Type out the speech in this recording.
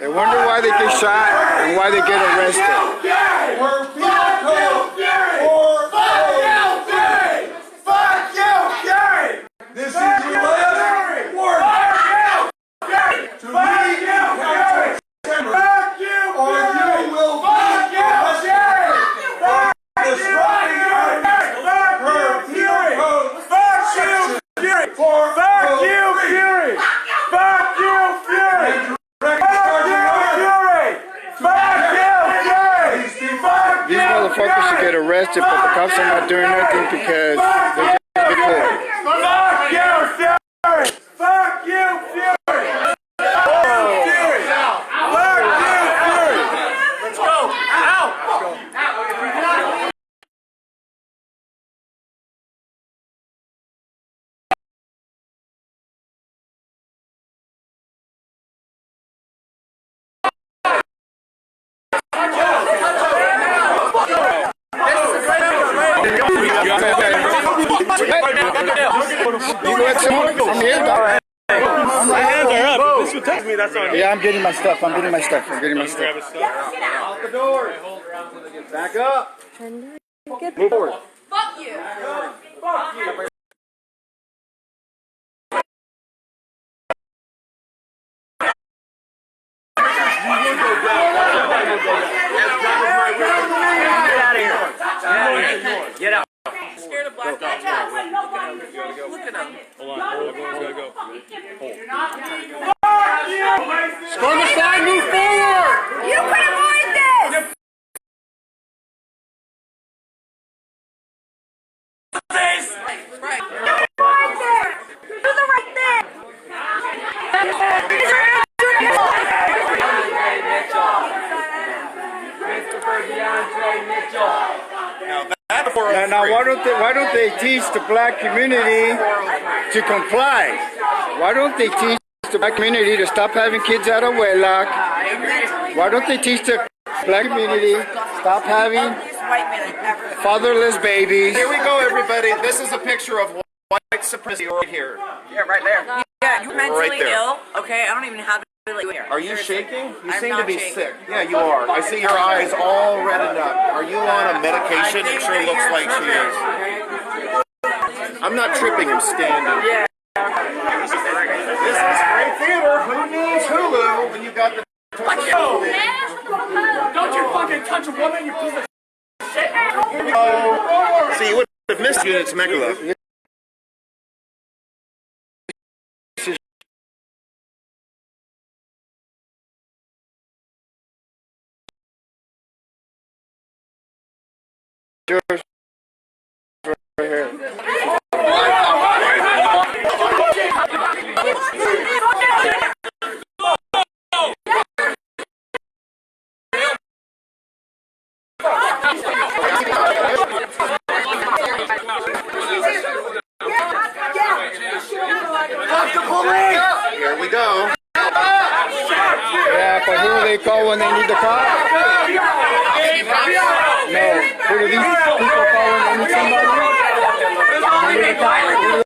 They wonder why they get shot and why they get arrested. We're people for Fuck you, Fuck you, Gary! This is your last word. To leave council or you will be arrested for disrupting her- her appeal code section for police. Records charging her These people- These motherfuckers should get arrested, but the cops are not doing nothing because they're just recording. Fuck you, Fury! Fuck you, Fury! Fuck you, Fury! Fuck you, Fury! Let's go! Out! You want some? I'm here, dog. My hands are up. If this would touch me, that's on you. Yeah, I'm getting my stuff. I'm getting my stuff. I'm getting my stuff. Fuck you. Scared of black guys. Storm aside, move forward! You could avoid this! Right. Avoid this! Do the right thing! Now, now why don't they why don't they teach the black community to comply? Why don't they teach the black community to stop having kids out of wedlock? Why don't they teach the black community stop having fatherless babies? Here we go, everybody. This is a picture of white supremacy right here. Yeah, right there. Yeah, you're mentally Right there. ill. Okay, I don't even know how to really here. Are you shaking? You I'm seem not to be shaking. sick. Yeah, you are. I see your eyes all reddened up. Are you on a medication? It sure looks like she is. I'm not tripping. I'm standing. Yeah. This is great theater. Who needs Hulu when you got the Don't you fucking touch a woman, you piece of shit. See, you would have missed Units Megalow. Here we go. Yeah, but who do they call when they need the cop? No. Who do these people call when they need somebody? Who do they call? Who do